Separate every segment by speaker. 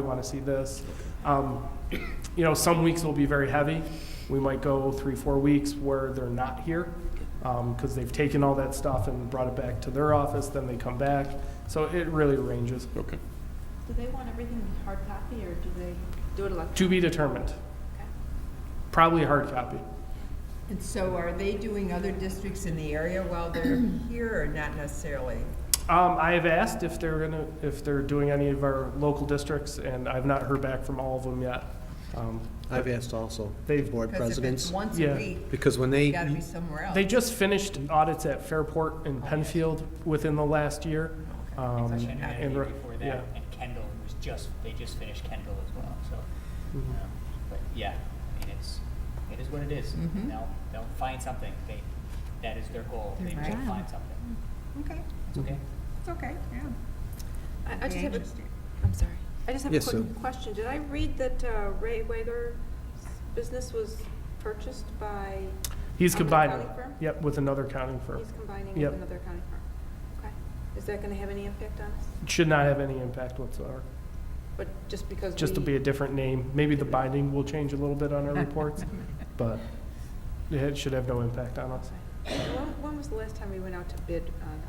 Speaker 1: want to see this. Um, You know, some weeks will be very heavy. We might go three, four weeks where they're not here because they've taken all that stuff and brought it back to their office, then they come back. So it really ranges.
Speaker 2: Okay.
Speaker 3: Do they want everything in hard copy, or do they do it electronically?
Speaker 1: To be determined. Probably hard copy.
Speaker 4: And so are they doing other districts in the area while they're here or not necessarily?
Speaker 1: Um, I have asked if they're gonna, if they're doing any of our local districts, and I've not heard back from all of them yet. Um,
Speaker 5: I've asked also,
Speaker 1: They've-
Speaker 5: board
Speaker 4: Because if it's
Speaker 5: presidents,
Speaker 4: once
Speaker 1: Yeah.
Speaker 4: a week,
Speaker 5: because when
Speaker 4: you
Speaker 5: they,
Speaker 4: gotta be somewhere else.
Speaker 1: They just finished audits at Fairport and Penfield within the last year. Um,
Speaker 6: Actually, I know that
Speaker 1: and
Speaker 6: day
Speaker 1: re-
Speaker 6: before
Speaker 1: yeah.
Speaker 6: that, and Kendall was just, they just finished Kendall as well, so.
Speaker 1: Mm-hmm.
Speaker 6: um, But yeah, I mean, it's, it is what it is.
Speaker 4: Mhm.
Speaker 6: They'll, they'll find something. They, that is their goal. They
Speaker 4: Right.
Speaker 6: will find something.
Speaker 4: Okay,
Speaker 1: Mm-hmm.
Speaker 6: It's okay.
Speaker 4: it's okay, yeah.
Speaker 7: I I just have a,
Speaker 4: Interesting.
Speaker 7: I'm sorry, I just have a
Speaker 5: Yes, Sue.
Speaker 7: quick question. Did I read that uh, Ray Wager's business was purchased by,
Speaker 1: He's
Speaker 7: Another
Speaker 1: combining,
Speaker 7: accounting firm?
Speaker 1: yep, with another accounting firm.
Speaker 7: he's combining
Speaker 1: Yep.
Speaker 7: with another accounting firm? Okay. Is that going to have any impact on us?
Speaker 1: Should not have any impact whatsoever,
Speaker 7: But just because we...
Speaker 1: just to be a different name. Maybe the binding will change a little bit on our reports, but it should have no impact on us.
Speaker 7: And When when was the last time we went out to bid on,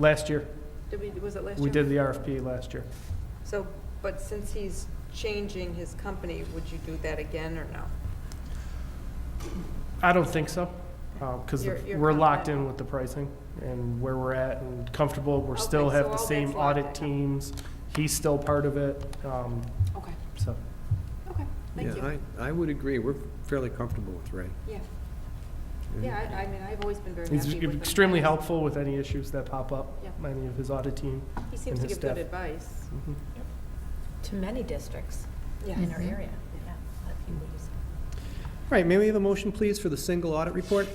Speaker 1: Last year,
Speaker 7: did we, was it last year?
Speaker 1: we did the RFP last year.
Speaker 7: So, but since he's changing his company, would you do that again or no?
Speaker 1: I don't think so, because
Speaker 7: You're- you're
Speaker 1: we're locked
Speaker 7: confident?
Speaker 1: in with the pricing and where we're at and comfortable. We're still
Speaker 7: Okay,
Speaker 1: have
Speaker 7: so
Speaker 1: the
Speaker 7: all
Speaker 1: same
Speaker 7: that's locked
Speaker 1: audit
Speaker 7: in.
Speaker 1: teams. He's still part of it, um,
Speaker 7: Okay,
Speaker 1: so.
Speaker 7: okay, thank
Speaker 5: yeah,
Speaker 7: you.
Speaker 5: I, I would agree, we're fairly comfortable with Ray.
Speaker 7: Yeah, yeah, I I mean, I've always been very happy
Speaker 1: He's
Speaker 7: with him.
Speaker 1: extremely helpful with any issues that pop up,
Speaker 7: Yep.
Speaker 1: any of his audit team.
Speaker 7: He seems
Speaker 1: in
Speaker 7: to
Speaker 1: his
Speaker 7: give good
Speaker 1: staff.
Speaker 7: advice.
Speaker 1: Mhm.
Speaker 8: to many districts
Speaker 7: Yes.
Speaker 8: in our
Speaker 9: Mm-hmm.
Speaker 8: area. Yeah, a few ways.
Speaker 5: All right, may we have a motion, please, for the single audit report?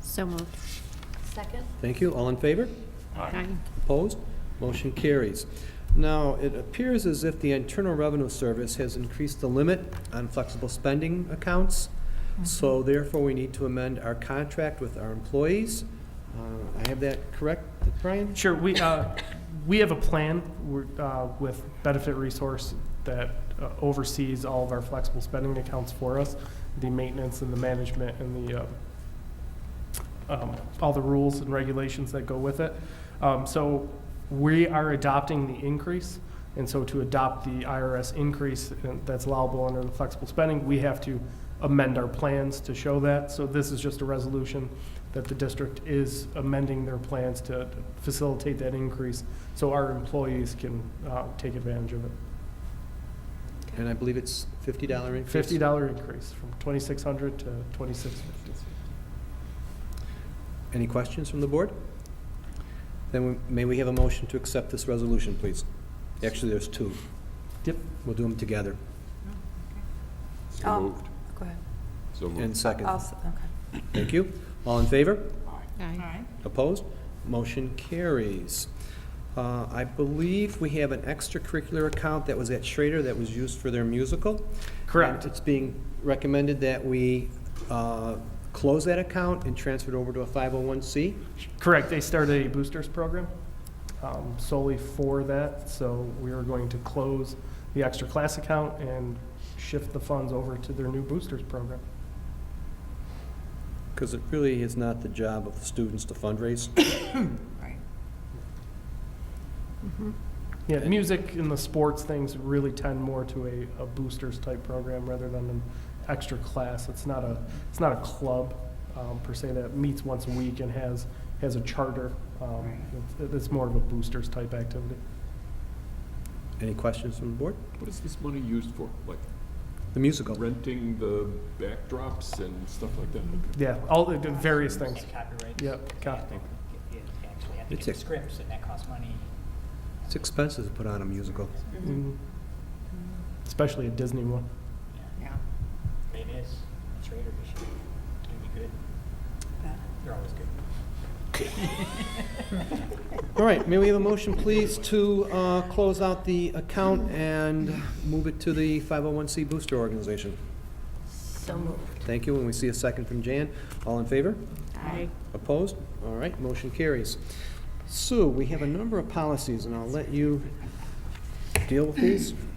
Speaker 9: So moved.
Speaker 8: Second?
Speaker 5: Thank you. All in favor?
Speaker 9: Aye.
Speaker 5: Opposed? Motion carries. Now, it appears as if the Internal Revenue Service has increased the limit on flexible spending accounts, so therefore we need to amend our contract with our employees. Uh, I have that correct, Brian?
Speaker 1: Sure, we, uh, we have a plan we're, uh, with Benefit Resource that uh, oversees all of our flexible spending accounts for us, the maintenance and the management and the, uh, um, all the rules and regulations that go with it. Um, So we are adopting the increase, and so to adopt the IRS increase uh, that's allowable under the flexible spending, we have to amend our plans to show that. So this is just a resolution that the district is amending their plans to facilitate that increase so our employees can uh, take advantage of it.
Speaker 5: And I believe it's fifty dollar increase?
Speaker 1: Fifty dollar increase from twenty-six hundred to twenty-six fifty.
Speaker 5: Any questions from the board? Then we- may we have a motion to accept this resolution, please? Actually, there's two.
Speaker 1: Yep.
Speaker 5: We'll do them together.
Speaker 7: Um,
Speaker 2: So moved.
Speaker 7: Go ahead.
Speaker 2: So moved.
Speaker 5: And second.
Speaker 7: I'll s- okay.
Speaker 5: Thank you. All in favor?
Speaker 9: Aye.
Speaker 4: Aye.
Speaker 5: Opposed? Motion carries. Uh, I believe we have an extracurricular account that was at Schrader that was used for their musical.
Speaker 1: Correct.
Speaker 5: And It's being recommended that we uh, close that account and transfer it over to a 501c.
Speaker 1: Correct, they started a boosters program um, solely for that, so we are going to close the extra class account and shift the funds over to their new boosters program.
Speaker 5: Because it really is not the job of the students to fundraise.
Speaker 4: Right.
Speaker 1: Yeah, music and the sports things really tend more to a, a boosters type program rather than an extra class. It's not a, it's not a club um, per se that meets once a week and has, has a charter. Um,
Speaker 4: Right.
Speaker 1: It's, it's more of a boosters type activity.
Speaker 5: Any questions from the board?
Speaker 2: What is this money used for? Like
Speaker 5: The musical.
Speaker 2: renting the backdrops and stuff like that?
Speaker 1: Yeah, all the the various things.
Speaker 6: And copyrights.
Speaker 1: Yep,
Speaker 6: because you have to
Speaker 1: copy.
Speaker 6: get- You actually have to
Speaker 5: It's
Speaker 6: get the
Speaker 5: a-
Speaker 6: scripts, and that costs money.
Speaker 5: It's expensive to put on a musical.
Speaker 1: Mm. Especially a Disney one.
Speaker 6: Yeah,
Speaker 4: Yeah.
Speaker 6: but it is. It's Raider this year. It's gonna be good. They're always good.
Speaker 5: All right, may we have a motion, please, to uh, close out the account and move it to the 501c booster organization?
Speaker 8: So moved.
Speaker 5: Thank you, and we see a second from Jan. All in favor?
Speaker 9: Aye.
Speaker 5: Opposed? All right, motion carries. Sue, we have a number of policies, and I'll let you deal with these.